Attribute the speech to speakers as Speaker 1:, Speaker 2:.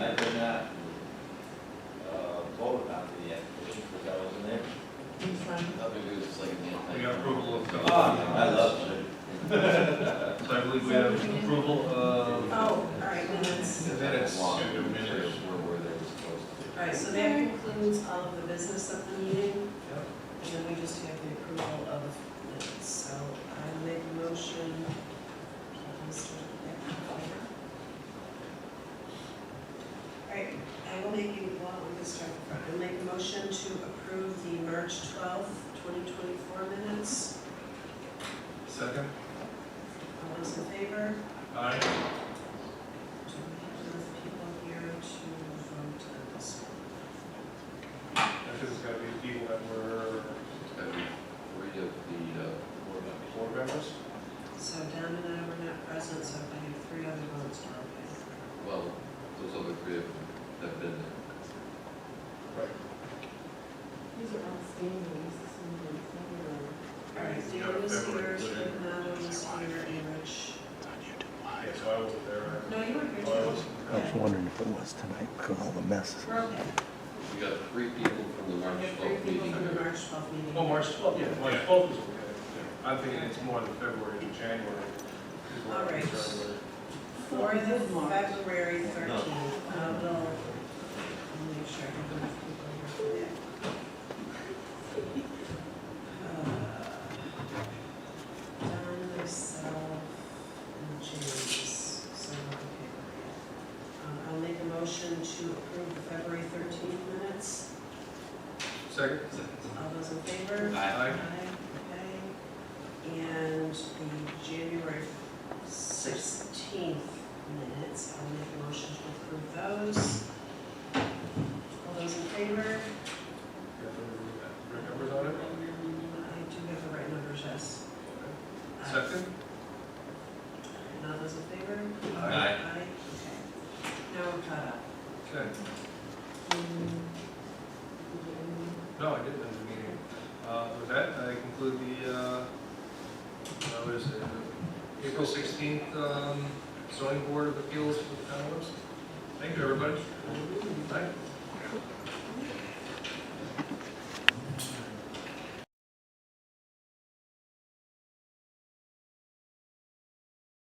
Speaker 1: Oh, right, so that concludes all of the business of the meeting, and then we just have the approval of minutes. So I make a motion. Mr. Becker? All right, I will make a, well, we can start from the front. I'll make a motion to approve the March twelfth, twenty twenty-four minutes.
Speaker 2: Second?
Speaker 1: All those in favor?
Speaker 2: Aye.
Speaker 1: Do we have enough people here to vote on this one?
Speaker 2: I think it's gotta be people that were
Speaker 3: And three of the, uh, board members.
Speaker 2: board members.
Speaker 1: So Don and I were not present, so I have three other votes for okay.
Speaker 3: well, those other three have have been there.
Speaker 2: Right.
Speaker 4: These are outstanding, this is something that's never.
Speaker 1: All right, Dan was here, Scrivenato was here, and Rich.
Speaker 2: Yeah, so I was there.
Speaker 1: No, you were here
Speaker 2: Oh, I was-
Speaker 1: too.
Speaker 5: I was wondering if it was tonight, because all the messes.
Speaker 1: We're okay.
Speaker 3: We got three people from the
Speaker 1: We
Speaker 3: March
Speaker 1: have three
Speaker 3: twelfth meeting.
Speaker 1: people from the
Speaker 3: here.
Speaker 1: March 12th meeting.
Speaker 2: Oh, March twelfth, yeah, March
Speaker 6: Yeah.
Speaker 2: twelfth is okay. I'm thinking it's more than February to January. is what I'm
Speaker 1: All right.
Speaker 2: concerned with.
Speaker 1: For the February 13th, uh, we'll, we'll make sure I have enough people here for that. Uh, Don, myself, and James, so not a paper. Um, I'll make a motion to approve the February 13th minutes.
Speaker 2: Second?
Speaker 1: All those in favor?
Speaker 2: Aye.
Speaker 1: Okay, and the January sixteenth minutes, I'll make a motion to approve those. All those in favor?
Speaker 2: You have to remove that. Three numbers on
Speaker 1: I
Speaker 2: it?
Speaker 1: do have the right numbers, yes.
Speaker 2: Okay. Second?
Speaker 1: And all those in favor?
Speaker 2: Aye.
Speaker 1: Aye, okay. Now uh, we're caught up.
Speaker 2: Okay. No, I didn't end the meeting. Uh, With that, I conclude the, uh, uh, what is it, uh, April 16th um, zoning board of appeals for the town of Webster. Thank you, everybody.